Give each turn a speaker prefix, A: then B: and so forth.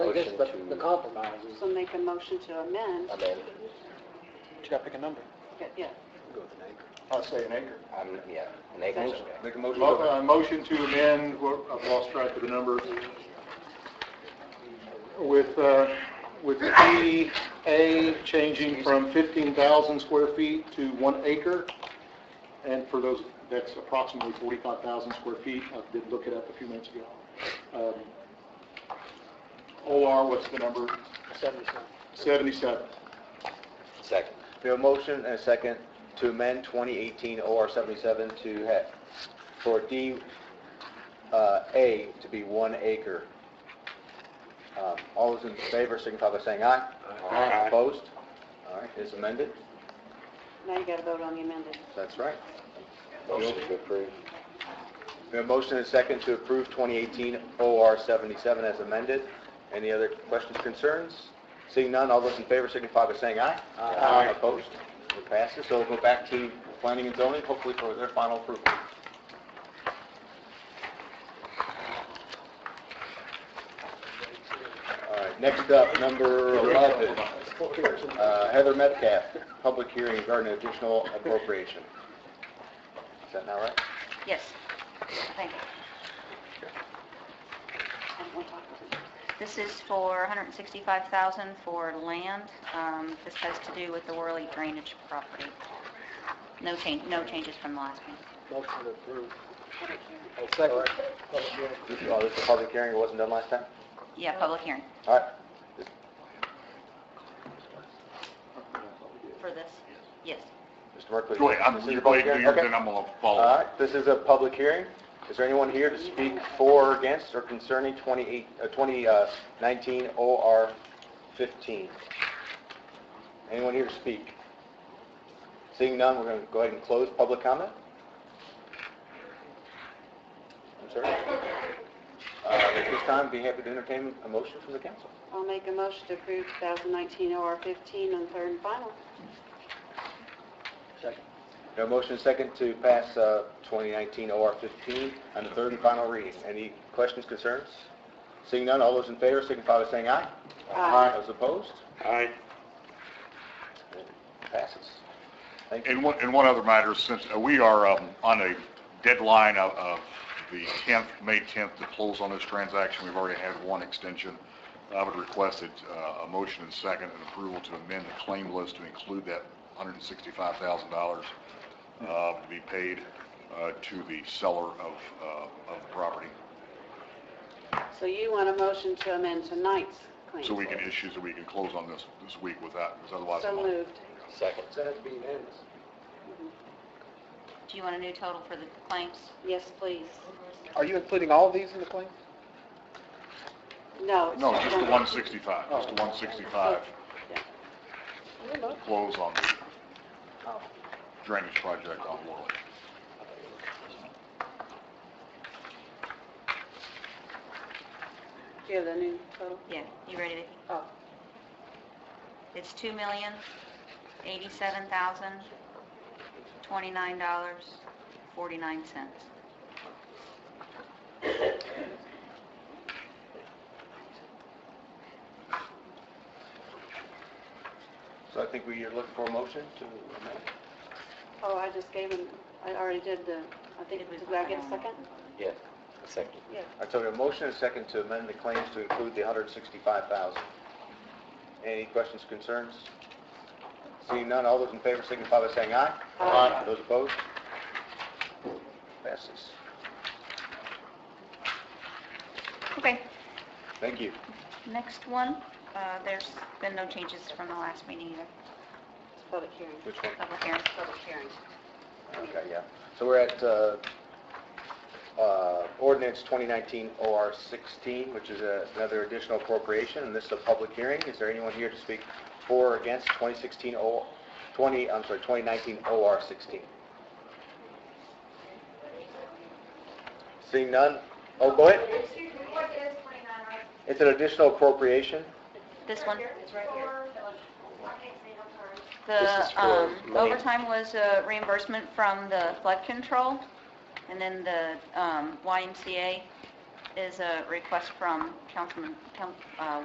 A: do this,
B: motion
A: but
B: to-
A: the compromise is,
C: So make a motion to amend,
B: amend,
D: You gotta pick a number.
C: yeah,
D: Go with an acre.
E: I'll say an acre.
B: um, yeah, an acre is okay.
D: Make a
E: Mo-
D: motion.
E: uh, Motion to amend, what- I've lost track of the number, with, uh, with EA changing from 15,000 square feet to one acre, and for those, that's approximately 45,000 square feet, I did look it up a few minutes ago. Um, OR, what's the number?
A: 77.
E: 77.
B: Second.
F: We have a motion and a second to amend 2018 OR 77 to have, for D, uh, A to be one acre. Um, All those in favor signify by saying aye.
B: Aye.
F: Opposed? All right, it's amended.
C: now you gotta vote on the amended.
F: That's right.
B: Motion to approve.
F: We have a motion and a second to approve 2018 OR 77 as amended. Any other questions, concerns? Seeing none, all those in favor signify by saying aye.
E: Aye.
F: Opposed? It passes, so we'll go back to planning and zoning, hopefully for their final approval. All right, next up, number 11, uh, Heather Metcalf, public hearing regarding additional appropriation. Is that not right?
G: Yes, thank you.
C: I don't wanna talk about it.
G: This is for $165,000 for land. Um, This has to do with the Worley drainage property. No change, no changes from the last meeting.
A: Motion approved. Second. Public hearing.
F: Oh, this is a public hearing, it wasn't done last time?
G: Yeah, public hearing
F: All right,
G: for this. Yes.
F: Mr. Merkley.
H: Go ahead,
F: This
H: I'm,
F: is a
H: you
F: public
H: wait to
F: hearing,
H: yours,
F: okay.
H: then I'm gonna
F: All
E: Uh,
H: follow.
F: right, this is a public hearing. Is there anyone here to speak for or against or concerning 28 uh, 2019 OR 15? Anyone here to speak? Seeing none, we're going to go ahead and close public comment. I'm sorry. Uh, At this time, be happy to entertain a motion from the council.
C: I'll make a motion to approve 2019 OR 15 on third and final.
A: Second.
F: No motion and second to pass uh, 2019 OR 15 on the third and final reading. Any questions, concerns? Seeing none, all those in favor signify by saying aye.
C: Aye.
F: Those opposed?
H: Aye.
F: Passes. Thank you.
H: And one, and one other matter, since uh, we are um, on a deadline of, of the 10th, May 10th to close on this transaction, we've already had one extension. I would request that, uh, a motion and second and approval to amend the claim list to include that $165,000 uh, to be paid uh, to the seller of, uh, of the property.
C: So you want a motion to amend tonight's claim?
H: So we can issue, so we can close on this, this week with that, because otherwise.
C: So
H: I'm-
C: moved.
B: Second.
A: So that'd be unanimous.
G: Do you want a new total for the claims?
C: Yes, please.
D: Are you including all of these in the claim?
C: No. it's
H: No, just the
C: one-
H: 165, just the 165
C: Yeah.
H: to close on the drainage project on Laurel.
C: Do you have the new total?
G: Yeah, you ready, Vicki?
C: Oh,
G: It's $2,087,029.49.
F: So I think we are looking for a motion to amend.
C: oh, I just gave him, I already did the, I think,
G: Did we-
C: did I get a second?
B: Yeah, second.
C: Yeah.
F: All right, so we have a motion and a second to amend the claims to include the 165,000. Any questions, concerns? Seeing none, all those in favor signify by saying aye.
C: Aye.
F: Those opposed? Passes.
G: Okay,
F: Thank you.
G: next one. Uh, There's been no changes from the last meeting either.
C: It's public hearing.
F: Which one?
G: Public hearing.
C: Public hearing.
F: Okay, yeah. So we're at uh, uh, ordinance 2019 OR 16, which is a- another additional appropriation, and this is a public hearing. Is there anyone here to speak for or against 2016 O, 20, I'm sorry, 2019 OR 16? Seeing none? Oh, go ahead.
I: Excuse me, what is 29 right?
F: It's an additional appropriation.
G: This one?
I: It's right here. I can't see, I'm sorry.
G: The
B: is for
G: um,
B: money.
G: overtime was uh, reimbursement from the flood control, and then the um, YMCA is a request from Councilman, Coun- uh,